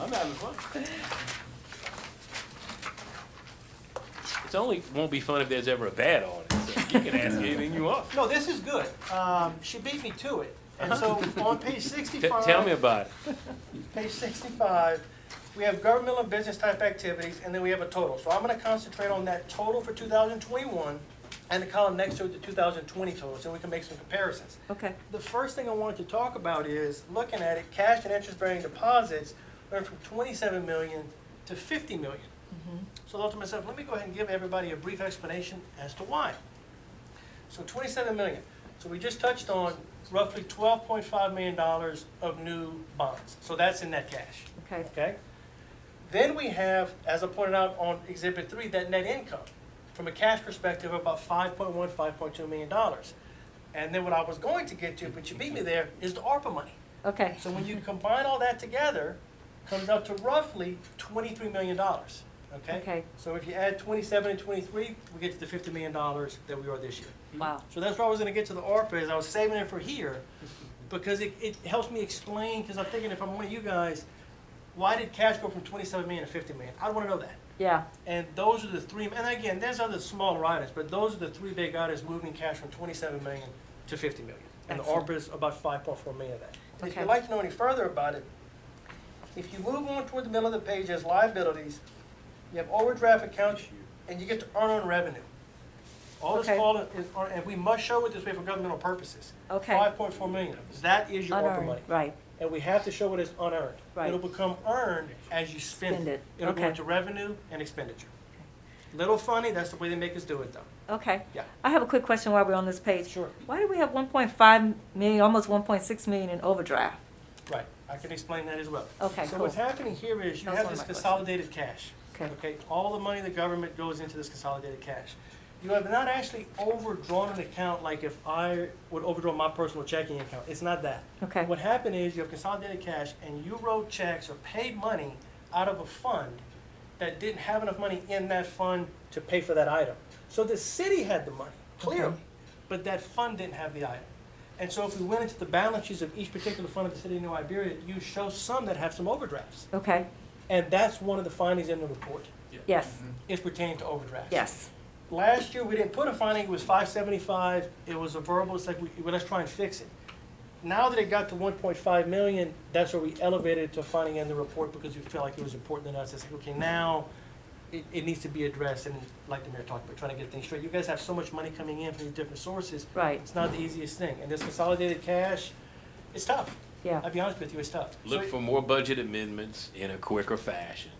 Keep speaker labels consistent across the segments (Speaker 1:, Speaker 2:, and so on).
Speaker 1: I'm having fun. It's only, won't be fun if there's ever a bad on it, so you can ask anything you want.
Speaker 2: No, this is good. Um, She beat me to it. And so on page
Speaker 1: Uh-huh. T-
Speaker 2: 65.
Speaker 1: Tell me about it.
Speaker 2: Page 65, we have governmental and business type activities, and then we have a total. So I'm going to concentrate on that total for 2021 and the column next to it, the 2020 total, so we can make some comparisons.
Speaker 3: Okay.
Speaker 2: The first thing I wanted to talk about is, looking at it, cash and interest-bearing deposits went from 27 million to 50 million. So I thought to myself, let me go ahead and give everybody a brief explanation as to why. So 27 million. So we just touched on roughly 12.5 million dollars of new bonds. So that's in net cash,
Speaker 3: Okay,
Speaker 2: okay? Then we have, as I pointed out on Exhibit 3, that net income from a cash perspective of about 5.1, 5.2 million dollars. And then what I was going to get to, but you beat me there, is the ARPA money.
Speaker 3: okay,
Speaker 2: So when you combine all that together, comes up to roughly twenty-three million dollars, okay?
Speaker 3: Okay.
Speaker 2: So if you add twenty-seven and twenty-three, we get to the fifty million dollars that we are this year.
Speaker 3: wow,
Speaker 2: So that's where I was gonna get to the ARPA, is I was saving it for here, because it, it helps me explain, because I'm thinking if I'm one of you guys, why did cash go from twenty-seven million to fifty million? I wanna know that.
Speaker 3: yeah,
Speaker 2: And those are the three, and again, there's other smaller items, but those are the three big items moving cash from twenty-seven million to fifty million. And the
Speaker 3: Excellent.
Speaker 2: ARPA is about five point four million of that. And If
Speaker 3: Okay.
Speaker 2: you'd like to know any further about it, if you move on toward the middle of the page as liabilities, you have overdraft accounts, and you get to earn on revenue. All this
Speaker 3: Okay.
Speaker 2: fall is, are- and we must show it this way for governmental purposes.
Speaker 3: Okay.
Speaker 2: Five point four million, of it. that is your ARPA
Speaker 3: unearned,
Speaker 2: money.
Speaker 3: right,
Speaker 2: And we have to show it as unearned.
Speaker 3: Right.
Speaker 2: It'll become earned as you spend
Speaker 3: Spend
Speaker 2: it.
Speaker 3: it,
Speaker 2: It'll go
Speaker 3: okay.
Speaker 2: into revenue and expenditure. Little funny, that's the way they make us do it though.
Speaker 3: okay.
Speaker 2: Yeah.
Speaker 3: I have a quick question while we're on this page.
Speaker 2: Sure.
Speaker 3: Why do we have one point five million, almost one point six million in overdraft?
Speaker 2: Right, I can explain that as well.
Speaker 3: Okay,
Speaker 2: So what's
Speaker 3: cool.
Speaker 2: happening here is you
Speaker 3: That was
Speaker 2: have
Speaker 3: one
Speaker 2: this
Speaker 3: of my questions.
Speaker 2: consolidated cash.
Speaker 3: Okay.
Speaker 2: Okay, all the money the government goes into this consolidated cash. You have not actually overdrawn an account like if I would overdraw my personal checking account. It's not that.
Speaker 3: Okay,
Speaker 2: What happened is you have consolidated cash and you wrote checks or paid money out of a fund that didn't have enough money in that fund to pay for that item. So the city had the money, clearly,
Speaker 3: Okay.
Speaker 2: but that fund didn't have the item. And so if we went into the balance sheets of each particular fund of the city of New Iberia, you show some that have some overdrafts.
Speaker 3: okay,
Speaker 2: And that's one of the findings in the report,
Speaker 3: yes,
Speaker 2: is pertaining to overdrafts.
Speaker 3: yes,
Speaker 2: Last year, we didn't put a finding, it was five seventy-five, it was a verbal, it's like, we, well, let's try and fix it. Now that it got to one point five million, that's where we elevated it to a finding in the report because we felt like it was important enough, it's like, okay, now it, it needs to be addressed, and like the mayor talked about, trying to get things straight, you guys have so much money coming in from these different sources,
Speaker 3: right,
Speaker 2: it's not the easiest thing, and this consolidated cash, it's tough,
Speaker 3: yeah,
Speaker 2: I'll be honest with you, it's tough. So
Speaker 1: Look
Speaker 2: it-
Speaker 1: for more budget amendments in a quicker fashion.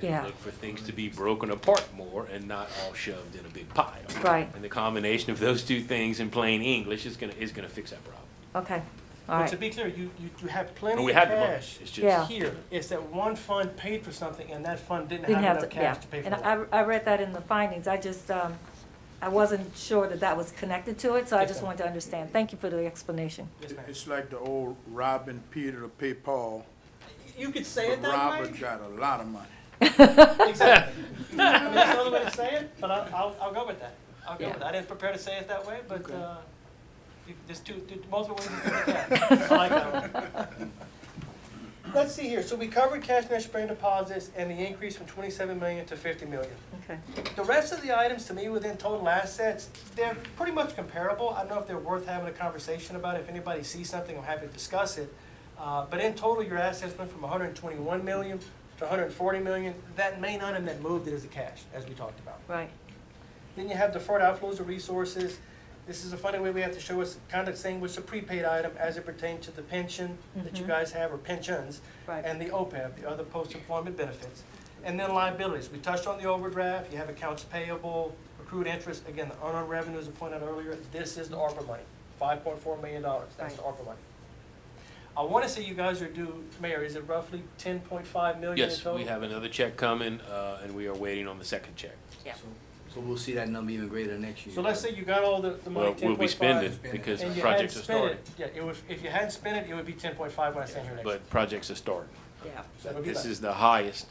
Speaker 1: and
Speaker 3: Yeah.
Speaker 1: Look for things to be broken apart more and not all shoved in a big pile.
Speaker 3: Right.
Speaker 1: And the combination of those two things in plain English is gonna, is gonna fix that problem.
Speaker 3: okay, all
Speaker 2: But to
Speaker 3: right,
Speaker 2: be clear, you, you, you have plenty
Speaker 1: And
Speaker 2: of
Speaker 1: we
Speaker 2: cash.
Speaker 1: have the money, it's just.
Speaker 3: Yeah.
Speaker 2: here is that one fund paid for something and that fund didn't
Speaker 3: didn't
Speaker 2: have
Speaker 3: have
Speaker 2: enough
Speaker 3: to, yeah.
Speaker 2: cash to pay for
Speaker 3: And
Speaker 2: it.
Speaker 3: I, I read that in the findings, I just, um, I wasn't sure that that was connected to it, so I
Speaker 2: Yes,
Speaker 3: just
Speaker 2: ma'am.
Speaker 3: wanted to understand. Thank you for the explanation.
Speaker 2: Yes, ma'am.
Speaker 4: It's like the old robbing Peter to pay Paul,
Speaker 2: You could say it
Speaker 4: but
Speaker 2: that
Speaker 4: Robert
Speaker 2: way.
Speaker 4: got a lot of money.
Speaker 2: Exactly. I mean, That's another way to say it, but I'll, I'll, I'll go with that. I'll go with that. I didn't prepare to say it that way, but,
Speaker 4: Okay.
Speaker 2: uh, you- there's two, there's multiple ways to look at it. I like that one. Let's see here. So we covered cash and interest bearing deposits and the increase from twenty-seven million to fifty million.
Speaker 3: Okay,
Speaker 2: The rest of the items to me within total assets, they're pretty much comparable. I don't know if they're worth having a conversation about. If anybody sees something, I'm happy to discuss it. Uh, but in total, your assets went from hundred and twenty-one million to hundred and forty million. That main item that moved it is the cash, as we talked about.
Speaker 3: right,
Speaker 2: Then you have deferred outflows of resources. This is a funny way we have to show us kind of saying what's a prepaid item as it pertains to the pension that you
Speaker 3: Mhm.
Speaker 2: guys have or pensions
Speaker 3: right.
Speaker 2: and the OPEB, the other post-employment benefits. And then liabilities, we touched on the overdraft, you have accounts payable, accrued interest, again, the unearned revenue as I pointed out earlier, this is the ARPA money, five point four million dollars, that's the ARPA money. I wanna say you guys are due, Mayor, is it roughly ten point five million in
Speaker 1: Yes,
Speaker 2: total?
Speaker 1: we have another check coming, uh, and we are waiting on the second check.
Speaker 5: So- So we'll see that number even greater next year.
Speaker 2: So let's say you got all the, the money,
Speaker 1: Well,
Speaker 2: ten point five.
Speaker 1: we'll be spending
Speaker 5: Spending.
Speaker 1: because
Speaker 2: And you hadn't
Speaker 1: projects are
Speaker 2: spent
Speaker 1: starting.
Speaker 2: it, yeah, it was, if you hadn't spent it, it would be ten point five when I stand here next.
Speaker 1: But projects are starting.
Speaker 3: Yeah,
Speaker 2: So it'll be
Speaker 1: This
Speaker 2: that.
Speaker 1: is the highest,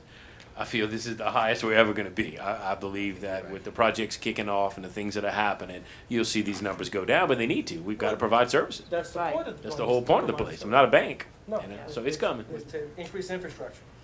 Speaker 1: I feel this is the highest we're ever gonna be. I, I believe that with the projects kicking off and the things that are happening, you'll see these numbers go down, but they need to. We've gotta provide services.
Speaker 2: That's the
Speaker 3: Right.
Speaker 2: point of the.
Speaker 1: That's the
Speaker 2: place.
Speaker 1: whole point of the place. I'm not a bank.
Speaker 2: No.
Speaker 1: you know, So it's coming.
Speaker 2: Is to increase infrastructure.